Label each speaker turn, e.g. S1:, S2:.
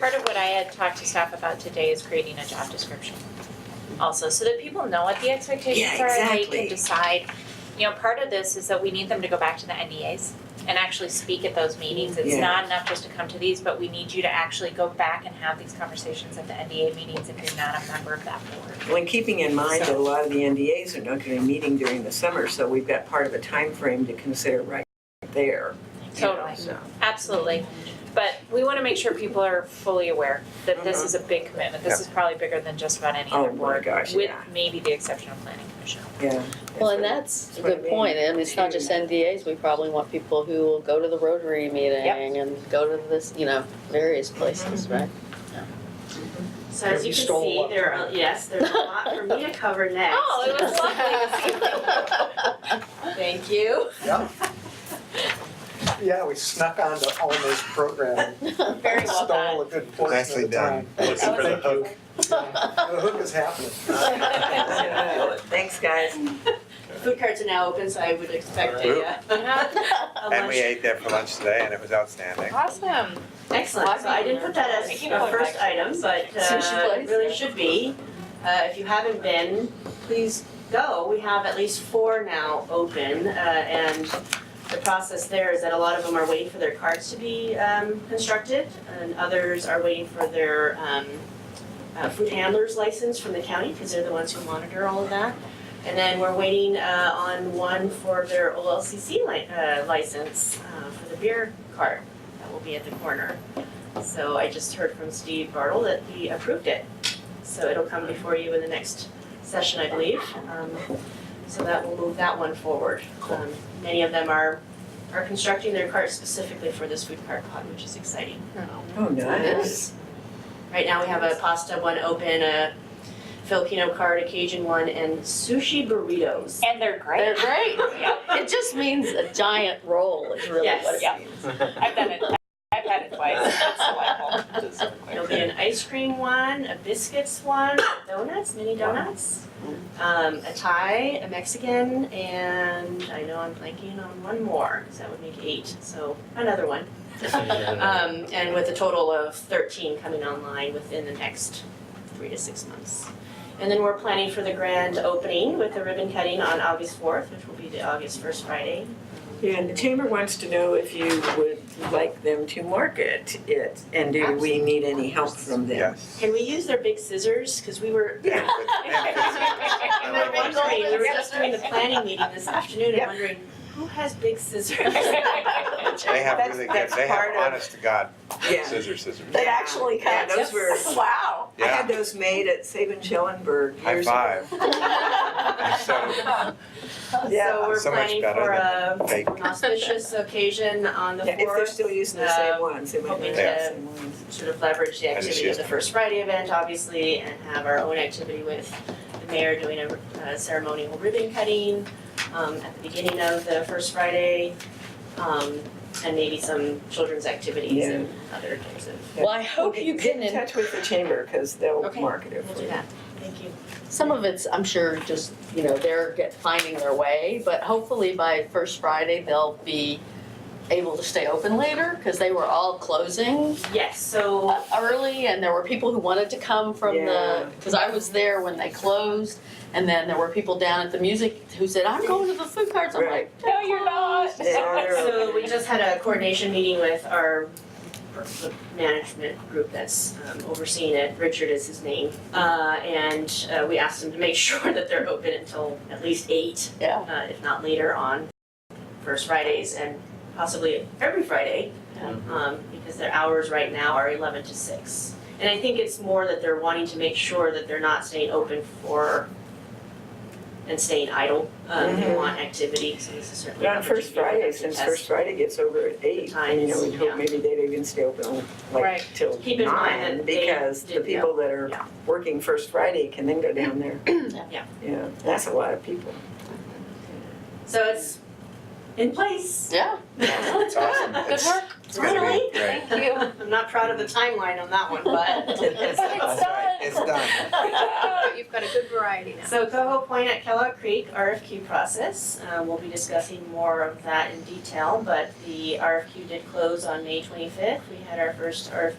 S1: Part of what I had talked to staff about today is creating a job description also, so that people know what the expectations
S2: Yeah,
S1: are, they
S2: exactly.
S1: can decide. You know, part of this is that we need them to go back to the NDAs and actually speak at those meetings. It's
S2: Yeah.
S1: not enough just to come to these, but we need you to actually go back and have these conversations at the NDA meetings if you're not a member of that board.
S2: Well, and keeping in mind that a lot of the NDAs are not gonna be meeting during the summer, so we've got part of a time frame to consider right there. you know,
S1: Totally.
S2: so.
S1: Absolutely, but we wanna make sure people are fully aware that this is a big commitment, this is probably bigger than just about any
S2: Oh
S1: other
S2: my
S1: board,
S2: gosh,
S1: with
S2: yeah.
S1: maybe the exception of planning commission.
S2: Yeah.
S3: Well, and that's a
S2: what I
S3: good
S2: mean.
S3: point, and it's not just NDAs, we probably want people who will go to the Rotary meeting and go to this, you know, various places, right?
S4: So
S5: Yeah,
S4: as you
S5: we
S4: can
S5: stole
S4: see,
S5: what-
S4: there are, yes, there's a lot for me to cover next.
S1: Oh, it was Thank you.
S5: Yeah, we snuck onto Alma's program
S1: Very
S5: and
S1: well done.
S5: stole a good portion of
S6: Nicely
S5: the
S6: done.
S5: time.
S6: Looking for the
S5: Thank you.
S6: hook.
S5: Yeah, The hook is happening.
S2: Thanks, guys.
S4: Food carts are now open, so I would expect a, uh, a
S6: And
S4: lunch.
S6: we ate there for lunch today and it was outstanding.
S1: Awesome.
S4: Excellent, so I didn't put that as
S1: Thank you for
S4: a first
S1: that.
S4: item, but
S3: Sushi
S4: uh, it
S3: place.
S4: really should be. Uh, if you haven't been, please go. We have at least four now open, uh, and the process there is that a lot of them are waiting for their carts to be, um, constructed, and others are waiting for their, um, uh, food handler's license from the county, because they're the ones who monitor all of that. And then we're waiting uh, on one for their OLCC li- uh, license uh, for the beer cart that will be at the corner. So I just heard from Steve Bartle that he approved it. So it'll come before you in the next session, I believe. Um, So that will move that one forward. Um, Many of them are, are constructing their cart specifically for this food cart pod, which is exciting.
S2: Oh, nice.
S4: Right now, we have a pasta one open, a Filipino cart, a Cajun one, and sushi burritos.
S1: And they're
S3: They're
S1: great.
S3: great,
S1: Yeah.
S3: it just means a giant roll is really
S4: Yes.
S3: what it
S1: Yeah.
S3: means.
S1: I've done it, I've had it twice, it's delightful. Just so clear.
S4: There'll be an ice cream one, a biscuits one, donuts, mini donuts, um, a Thai, a Mexican, and I know I'm blanking on one more, so that would make eight, so another one. Um, and with a total of thirteen coming online within the next three to six months. And then we're planning for the grand opening with the ribbon cutting on August fourth, which will be the August first Friday.
S2: Yeah, and the chamber wants to know if you would like them to market it, and do we need any help from them?
S6: Yes.
S4: Can we use their big scissors? Cause we were
S6: And good- and good-
S4: And we're wondering, we were just doing the planning meeting this afternoon and
S2: Yeah.
S4: wondering, who has big scissors?
S6: They have
S2: That's-
S6: really good,
S2: that's
S6: they
S2: part
S6: have
S2: of-
S6: honest to God
S2: Yeah.
S6: scissors, scissors.
S2: They actually
S4: cut.
S2: Yeah, those were,
S4: Wow.
S2: I had
S6: Yeah,
S2: those made at Saban Schellenberg
S6: high
S2: years ago.
S6: five. So
S4: So we're
S6: So much
S4: planning
S6: better
S4: for a
S6: fake.
S4: an auspicious occasion on the
S2: Yeah, if they're
S4: fourth,
S2: still using the
S4: uh,
S2: same ones, they might not
S4: hoping
S2: have
S4: to-
S2: the same ones.
S4: sort of leverage the
S6: And it's
S4: activity of
S6: just-
S4: the First Friday event, obviously, and have our own activity with the mayor doing a uh, ceremonial ribbon cutting um, at the beginning of the First Friday, um, and maybe some children's activities
S2: Yeah.
S4: and other types of,
S3: Well, I hope
S2: Okay,
S3: you
S2: Get
S3: can,
S2: in
S3: and
S2: touch with the chamber, because they'll
S4: Okay.
S2: market it
S4: we'll
S2: for
S4: do
S2: you.
S4: that. Thank you.
S3: some of it's, I'm sure, just, you know, they're get, finding their way, but hopefully by first Friday, they'll be able to stay open later, cause they were all closing
S4: Yes, so
S3: uh, early and there were people who wanted to come from
S2: Yeah.
S3: the because I was there when they closed and then there were people down at the music who said I'm going to the food carts I'm
S2: Right.
S3: like
S1: No, you're not.
S2: They are.
S4: So we just had a coordination meeting with our the management group that's um, overseeing it, Richard is his name. Uh, and uh, we asked them to make sure that they're open until at least eight,
S3: yeah
S4: uh, if not later on first Fridays and possibly every Friday. Um, because their hours right now are eleven to six. And I think it's more that they're wanting to make sure that they're not staying open for and staying idle. Um, they
S2: Mhm.
S4: want activity, so this is certainly
S2: But
S4: an
S2: on First
S4: opportunity
S2: Friday,
S4: for them to
S2: since
S4: test.
S2: First Friday gets over at eight, you know,
S4: times,
S2: we
S4: yeah.
S2: hope maybe they'd even stay open
S1: Right.
S2: like till
S4: Keep in mind
S2: nine,
S4: that they
S2: because the
S4: did-
S2: people that
S4: yeah.
S2: are working First Friday can then go down there.
S4: Yeah.
S2: Yeah, that's a lot of people.
S4: So it's in place.
S3: yeah
S6: It's awesome.
S1: Good work.
S6: It's gonna be
S4: Really?
S6: great.
S1: Thank you.
S4: I'm not proud of the timeline on that one, but it's
S6: That's right, It's done.
S7: You've got a good variety now.
S4: So Coho Point at Kellogg Creek RFQ process, uh, we'll be discussing more of that in detail, but the RFQ did close on May twenty-fifth. We had our first RFQ